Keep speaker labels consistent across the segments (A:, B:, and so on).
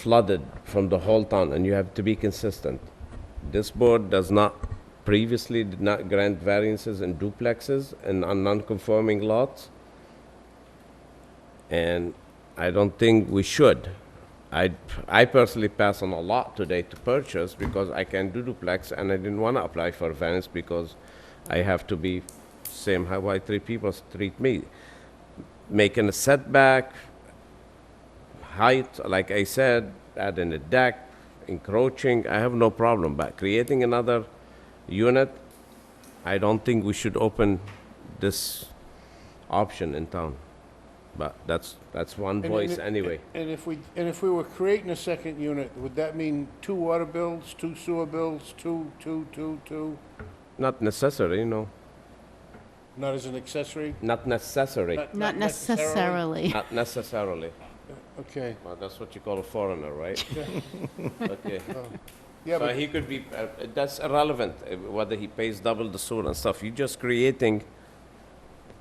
A: flooded from the whole town, and you have to be consistent. This board does not, previously did not grant variances in duplexes and on non-conforming lots. And I don't think we should. I, I personally pass on a lot today to purchase because I can do duplex and I didn't want to apply for variance because I have to be same how I treat people treat me. Making a setback, height, like I said, adding a deck, encroaching, I have no problem, but creating another unit, I don't think we should open this option in town. But that's, that's one
B: And-
A: voice
B: and-
A: anyway.
B: And if we, and if we were creating a second unit, would that mean two water bills, two sewer bills, two, two, two, two?
A: Not necessary, no,
B: Not as an accessory?
A: not necessary,
C: Not necessarily.
A: not necessarily.
B: Okay,
A: Well, that's what you call a foreigner, right? Okay.
B: yeah,
A: So
B: but,
A: he could be, uh, that's irrelevant, uh, whether he pays double the sewer and stuff. You're just creating,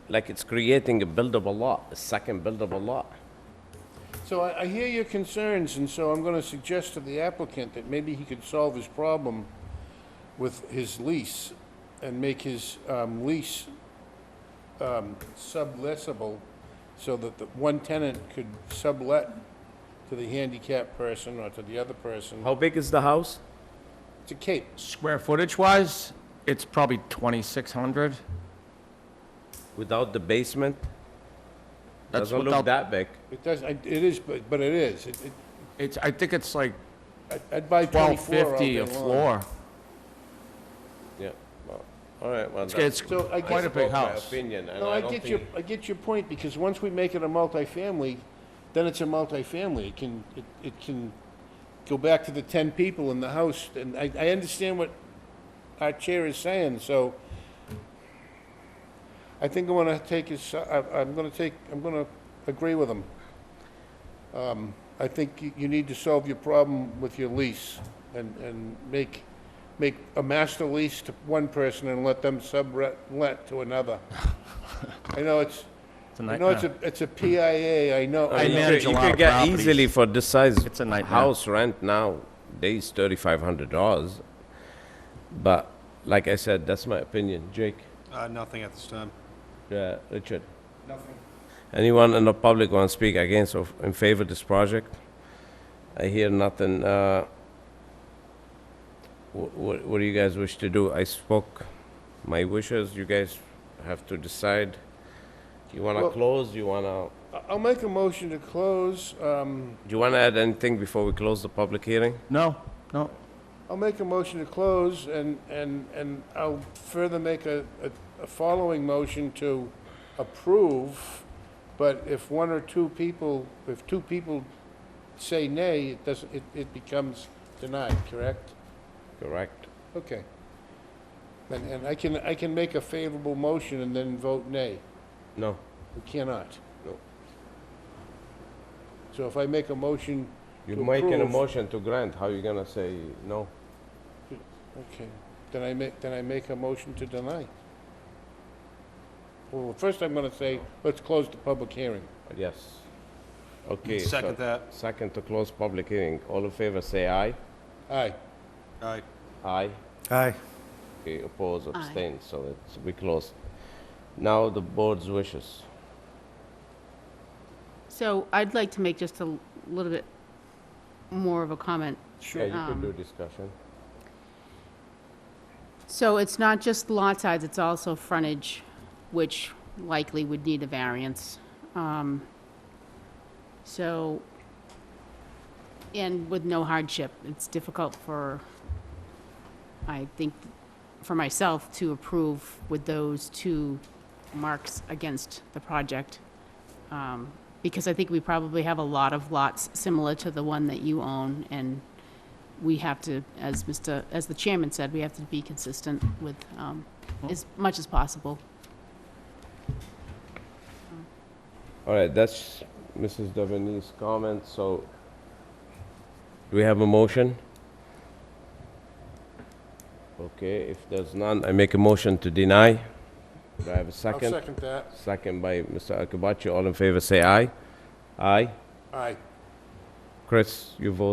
A: like it's creating a buildable lot, a second buildable lot.
B: so I, I hear your concerns, and so I'm gonna suggest to the applicant that maybe he could solve his problem with his lease and make his, um, lease, um, subleasable so that the one tenant could sublet to the handicapped person or to the other person.
A: How big is the house?
B: It's a cape.
D: Square footage wise, it's probably 2,600.
A: Without the basement?
D: That's
A: Doesn't look
D: without-
A: that big.
B: It does, I- it is, but, but it is. It- it-
D: It's, I think it's like
B: I- I'd buy 24 all
D: 1,250
B: day
D: a
B: long.
D: floor.
A: Yeah, well, all right, well,
D: It's
A: that's
B: So I
D: quite a
B: guess,
D: big
A: my
D: house.
A: opinion, and
B: no,
A: I
B: I
A: don't
B: get your,
A: think,
B: I get your point, because once we make it a multifamily, then it's a multifamily. It can, it it can go back to the 10 people in the house, and I, I understand what our chair is saying, so I think I'm gonna take his, I- I'm gonna take, I'm gonna agree with him. Um, I think you, you need to solve your problem with your lease and, and make, make a master lease to one person and let them sublet to another. I know it's,
D: It's a
B: I know it's a,
D: nightmare.
B: it's a PIA, I know.
A: I mean, you
D: manage
A: could-
D: a
A: you
D: lot
A: could
D: of
A: get
D: properties.
A: easily for this size.
D: It's a nightmare.
A: House rent now, days thirty-five hundred dollars. But like I said, that's my opinion. Jake?
E: Uh, nothing at this time.
A: Yeah, Richard? Nothing. Anyone in the public want to speak against or in favor of this project? I hear nothing. uh, wh- wh- What do you guys wish to do? I spoke my wishes, you guys have to decide. You want to
B: Well-
A: close, you want to,
B: I- I'll make a motion to close, um,
A: do you want to add anything before we close the public hearing?
D: No, no.
B: I'll make a motion to close and, and, and I'll further make a, a, a following motion to approve, but if one or two people, if two people say nay, it doesn't, it, it becomes denied, correct?
A: Correct.
B: Okay. And, and I can, I can make a favorable motion and then vote nay.
A: No,
B: We cannot.
A: No.
B: So if I make a motion,
A: you're
B: To
A: making a
B: approve.
A: motion to grant, how you gonna say no?
B: okay, then I make, then I make a motion to deny. Well, first I'm gonna say, let's close the public hearing.
A: Yes. Okay. so-
E: Second that.
A: Second to close public hearing. All in favor, say aye.
B: Aye.
E: Aye.
A: Aye.
E: Aye.
A: Okay, oppose, abstain, so it's, we close. Now the board's wishes.
C: So I'd like to make just a little bit more of a comment.
A: Sure. Yeah, you could do discussion.
C: So it's not just lot size, it's also frontage, which likely would need a variance. Um, So, and with no hardship, it's difficult for, I think, for myself to approve with those two marks against the project. Um, Because I think we probably have a lot of lots similar to the one that you own, and we have to, as Mr., as the chairman said, we have to be consistent with, um, as much as possible.
A: All right, that's Mrs. Deveney's comment, so do we have a motion? Okay, if there's none, I make a motion to deny. Do I have a
B: I'll
A: second?
B: second that.
A: Second by Mr. Akabachi. All in favor, say aye. Aye.
B: Aye.
A: Chris, you vote